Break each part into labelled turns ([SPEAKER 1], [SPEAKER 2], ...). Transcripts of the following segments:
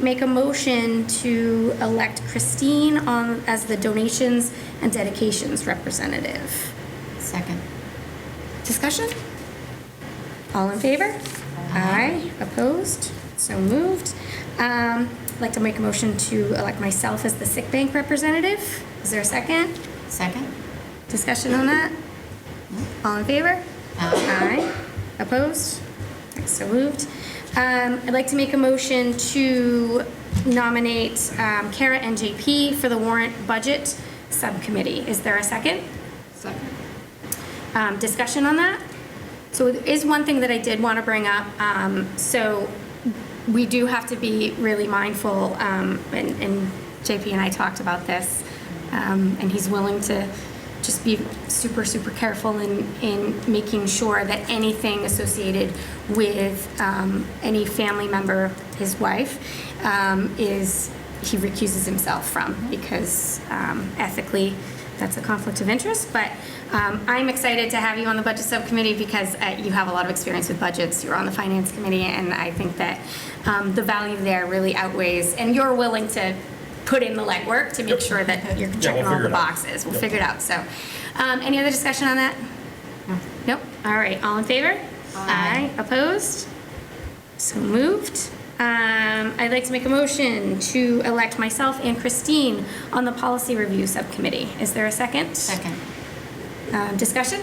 [SPEAKER 1] make a motion to elect Christine on, as the donations and dedications representative.
[SPEAKER 2] Second. Discussion?
[SPEAKER 1] All in favor? Aye. Opposed? So moved. Um, I'd like to make a motion to elect myself as the sick bank representative. Is there a second?
[SPEAKER 2] Second?
[SPEAKER 1] Discussion on that? All in favor?
[SPEAKER 2] Uh,
[SPEAKER 1] Aye. Opposed? So moved. Um, I'd like to make a motion to nominate um, Kara and JP for the warrant budget subcommittee. Is there a second?
[SPEAKER 2] Second.
[SPEAKER 1] um, discussion on that. So it is one thing that I did want to bring up. Um, So we do have to be really mindful, um, and and JP and I talked about this, um, and he's willing to just be super, super careful in, in making sure that anything associated with um, any family member, his wife, um, is, he recuses himself from, because um, ethically, that's a conflict of interest, but um, I'm excited to have you on the budget subcommittee because uh, you have a lot of experience with budgets. You're on the finance committee, and I think that um, the value there really outweighs, and you're willing to put in the legwork to make sure that you're checking all
[SPEAKER 3] figure
[SPEAKER 1] the
[SPEAKER 3] it out.
[SPEAKER 1] boxes. We'll figure it out, so. um, Any other discussion on that? Nope, all right, all in favor? Aye. Opposed? So moved. Um, I'd like to make a motion to elect myself and Christine on the Policy Review Subcommittee. Is there a second?
[SPEAKER 2] Second.
[SPEAKER 1] Um, Discussion?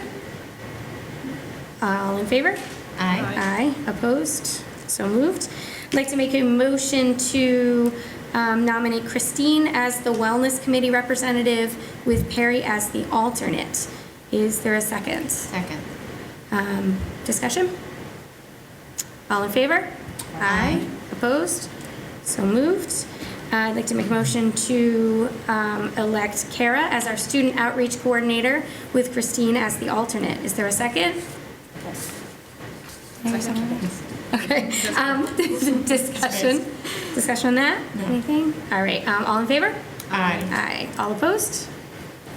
[SPEAKER 1] All in favor?
[SPEAKER 2] Aye.
[SPEAKER 1] Aye. Opposed? So moved. I'd like to make a motion to um, nominate Christine as the Wellness Committee representative with Perry as the alternate. Is there a second?
[SPEAKER 2] Second.
[SPEAKER 1] Um, Discussion? All in favor? Aye. Opposed? So moved. Uh, I'd like to make a motion to um, elect Kara as our student outreach coordinator with Christine as the alternate. Is there a second? Okay. Um, Discussion? Discussion on that? Anything? All right. um, All in favor?
[SPEAKER 2] Aye.
[SPEAKER 1] Aye. All opposed?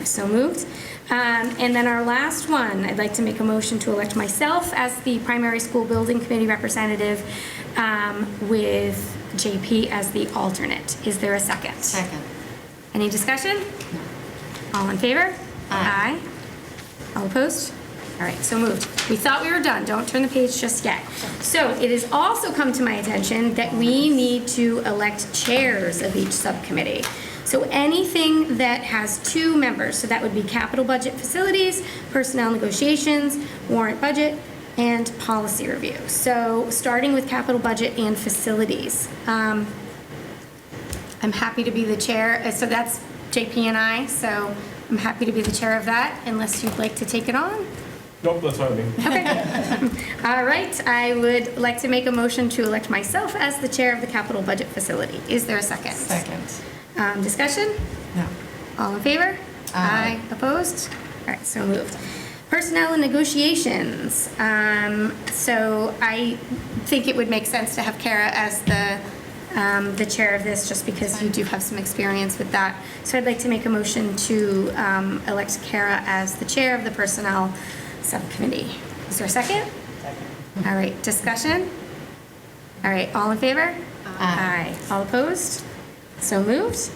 [SPEAKER 1] So moved. Um, And then our last one, I'd like to make a motion to elect myself as the primary school building committee representative um, with JP as the alternate. Is there a second?
[SPEAKER 2] Second.
[SPEAKER 1] Any discussion? All in favor?
[SPEAKER 2] Aye.
[SPEAKER 1] Aye. All opposed? All right, so moved. We thought we were done, don't turn the page just yet. So it has also come to my attention that we need to elect chairs of each subcommittee. So anything that has two members, so that would be capital budget facilities, personnel negotiations, warrant budget, and policy review. So starting with capital budget and facilities. Um, I'm happy to be the chair, Uh, so that's JP and I, so I'm happy to be the chair of that, unless you'd like to take it on.
[SPEAKER 3] Nope, that's not me.
[SPEAKER 1] All right, I would like to make a motion to elect myself as the chair of the capital budget facility. Is there a second? Um, Discussion?
[SPEAKER 2] No.
[SPEAKER 1] All in favor?
[SPEAKER 2] Aye.
[SPEAKER 1] Opposed? All right, so moved. Personnel and negotiations. Um, So I think it would make sense to have Kara as the, um, the chair of this, just because you do have some experience with that. So I'd like to make a motion to um, elect Kara as the chair of the Personnel Subcommittee. Is there a second? All right, discussion? All right, all in favor?
[SPEAKER 2] Aye.
[SPEAKER 1] All opposed? So moved.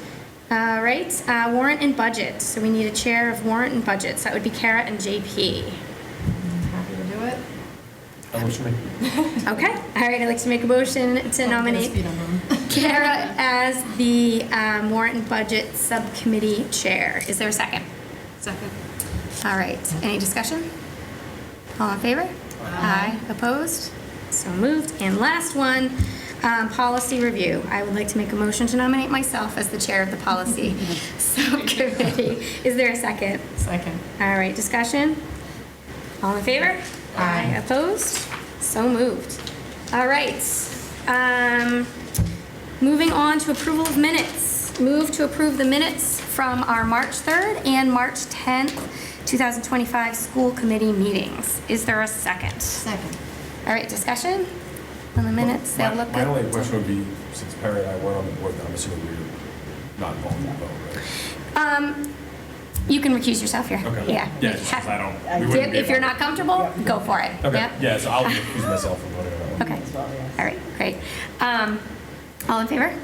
[SPEAKER 1] All right, uh, warrant and budget. So we need a chair of warrant and budget. So that would be Kara and JP.
[SPEAKER 2] Happy to do it?
[SPEAKER 3] That was me.
[SPEAKER 1] Okay, all right, I'd like to make a motion
[SPEAKER 2] Oh,
[SPEAKER 1] to nominate
[SPEAKER 2] Speed on them.
[SPEAKER 1] Kara as the um, warrant and budget subcommittee chair. Is there a second?
[SPEAKER 2] Second.
[SPEAKER 1] All right, any discussion? All in favor? Aye. Opposed? So moved. And last one, um, policy review. I would like to make a motion to nominate myself as the chair of the policy subcommittee. Is there a second?
[SPEAKER 2] Second.
[SPEAKER 1] All right, discussion? All in favor? Aye. Opposed? So moved. All right. um, Moving on to approval of minutes. Move to approve the minutes from our March 3rd and March 10th, 2025 school committee meetings. Is there a second?
[SPEAKER 2] Second.
[SPEAKER 1] All right, discussion on the minutes? They'll
[SPEAKER 3] My-
[SPEAKER 1] look
[SPEAKER 3] My only
[SPEAKER 1] good.
[SPEAKER 3] question would be, since Perry and I weren't on the board, I'm assuming we're not involved in the vote, right?
[SPEAKER 1] Um, You can recuse yourself here.
[SPEAKER 3] Okay.
[SPEAKER 1] Yeah.
[SPEAKER 3] Yeah, just 'cause I don't- we
[SPEAKER 1] If-
[SPEAKER 3] wouldn't be
[SPEAKER 1] If you're
[SPEAKER 3] able-
[SPEAKER 1] not comfortable, go for it.
[SPEAKER 3] Okay,
[SPEAKER 1] Yep.
[SPEAKER 3] yeah, so I'll excuse myself from voting on that one.
[SPEAKER 1] Okay, all right, great. Um, All in favor?